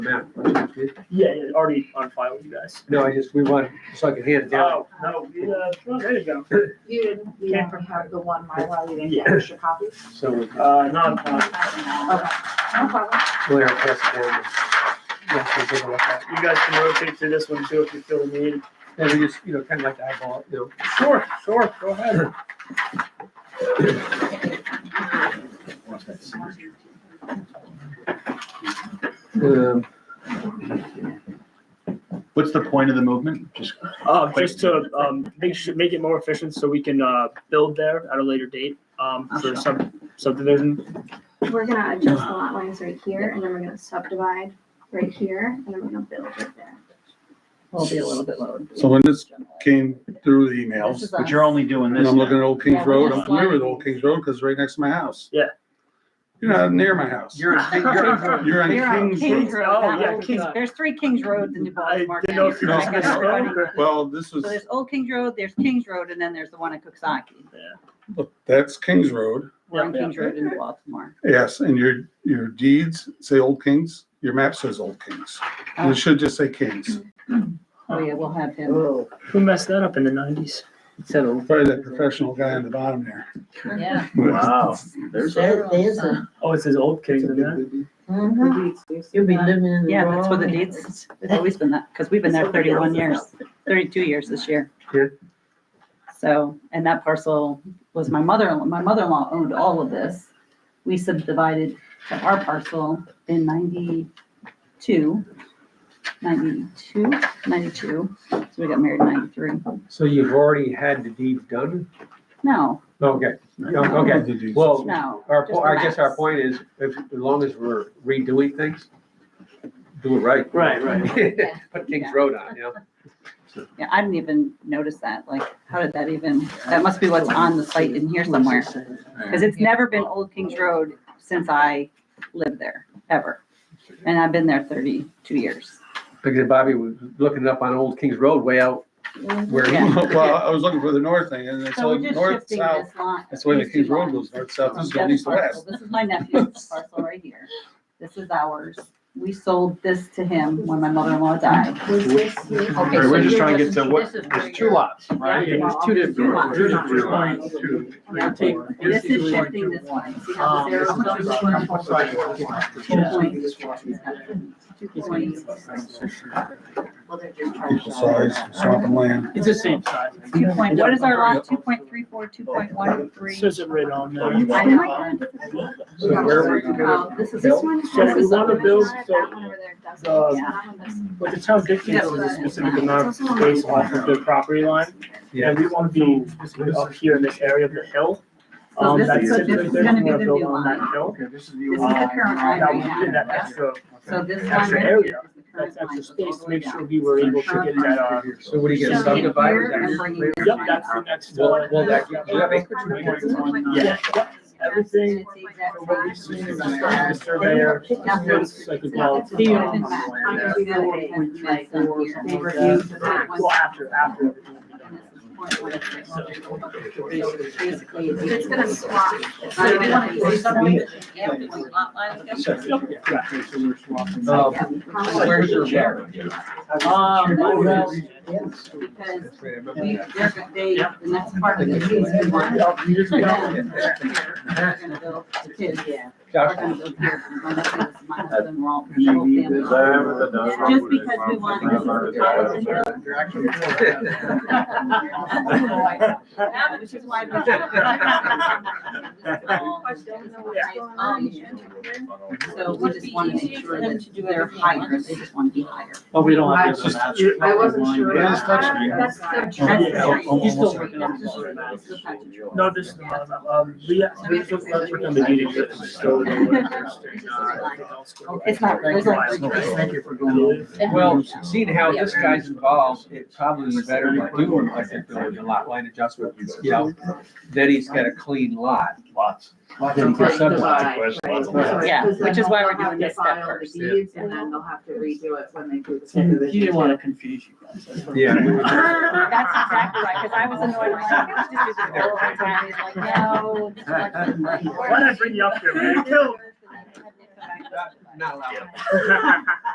map. right? Yeah, yeah, already on file with you guys. No, I just, we want, so I can hand it down. Oh, no, we, uh, oh, there you go. You didn't, you Yeah. didn't have the one Mylar, you didn't Yeah. get extra copies? So we can- Uh, non, uh, Okay, no problem. we'll pass it down. Yeah, so take a look at it. you guys can rotate through this one too if you feel the need. And we just, you know, kind of like to eyeball, it, you know, Sure, sure, go ahead. Um, What's the point of the movement? Just, Uh, just to, um, make sure, make it more efficient so we can, uh, build there at a later date, um, for sub, subdivision. We're gonna adjust the lot lines right here, and then we're gonna subdivide right here, and then we're gonna build right there. Will be a little bit lower. So when this came through the emails, but you're only doing and this I'm looking now. at Old Kings Road, I'm familiar with Old Kings Road because it's right next to my house. Yeah. You're not near my house. You're, you're, You're You're on on Kings Kings Road. Road. Oh, not yeah, Old Kings- Kings- There's three Kings Roads in New I Baltimore. didn't know if you County. guys No. missed it. Well, this So was, there's Old Kings Road, there's Kings Road, and then there's the one at Cooksaki. look, that's Kings Road. We're on Yeah. Kings Road in New Baltimore. Yes, and your, your deeds say Old Kings, your map says Old Kings. And it should just say Kings. Oh, yeah, we'll have him. Who messed that up in the nineties? Probably that professional guy on the bottom there. Yeah. Wow. There's a- There, there's a, Oh, it says Old Kings in that. you're. mhm. you'll be living in the Uh, Yeah, that's what the wrong. deeds, it's always been that, because we've been there Somebody thirty-one years, else's thirty-two years this year. Yeah. So, and that parcel was my mother, my mother-in-law owned all of this. We subdivided to our parcel in ninety-two, ninety-two, ninety-two, so we got married in ninety-three. So you've already had the deed done? No, Okay, okay. The deeds. Well, no, Our, Just po- I guess our relax. point is, if, as long as we're redoing things, do it right. Right, right. Put Kings Road on, you know? yeah, I didn't even notice that, like, how did that even, that must be what's on the site in here somewhere. Because it's never been Old Kings Road since I lived there, ever. And I've been there thirty-two years. Because Bobby was looking up on Old Kings Road way out where he. Yeah. Well, I was looking for the north thing and it's So we're all just north, shifting south. this lot. That's the way the these Kings two Road lots goes, north, south, from this is Jeff's east, to parcel. west. This is my nephew's parcel right here. This is ours. We sold this to him when my mother-in-law died. Was this your- All right, we're just trying to get to what, This is there's two lots, right? Yeah, there's two different lots. Two And different lots. that's- and This is shifting this one. See how Um, the zero this is comes just from one four point two point Well, they're just trying to- Equal size, swamp and land. It's the same size. Two point, what is our lot? Two point three four, two point one three. Says it right on there. Oh my God, this is- So where are we Oh, gonna? This is, This one. So has we a wanna subdivision build on it, the- That one over there doesn't. the- That one does. But the town dictates a specific amount of space off of their property line, Yeah. and we want to be up here in this area of the hill. so Um, this that's is, it, this right is there, gonna we be the wanna build new on line. that hill. This is This is the current line Now, right we did that now. extra, So this line extra right area, here is the that's current line. extra space to make sure we were able to get that, uh, So what do you get, So in here, I'm subdivided? bringing this yep, line that's up. the next. uh, Well, well, that, do you have acreage Yeah. on that? Yeah. Yeah, yep, And everything. it's the exact from what we size. see is The surveyor, it's like a ball. They opened that. I'm uh, gonna do that again, like, up here. They reviewed the map. Well, after, after. everything. And this is point one six. So Basically. It's gonna swap. So if you wanna do something- Yep, yeah. Um, How much? Where's your chair? Um, well, because we, Because they're, gonna- they, the next part of this is we want. They're gonna build the kids. We're gonna build here. My nephew, my husband, we're all, the whole family. Just because we want this is the top of the hill. Which is why. Um, So we just want to make sure that they're higher, they just want to be higher. Well, we don't have. It's to- just- I wasn't sure. Yeah, it's touch screen. That's the- That's the Yeah. tree. He's still That's the working on tree. it. That's the patch of tree. No, this is, not about- um, we, we took, let's work on the meeting. minutes, so- It's not, there's like. Thank you for going. Well, seeing how this guy's involved, it probably is better to do him like they're doing a lot line adjustment, you know? Then he's got a clean lot. Lots. Then he gets subdivided. Right, Yeah, 'cause then which is why they'll we're doing have to this step file the first. deeds, And then they'll have to redo it when they do the You subdivision. didn't want to confuse you guys. that's what- Yeah. That's exactly right, because I was annoyed, I'm like, I just do this all the time, he's like, no. just like- Why'd I bring you up here, man? Not allowed.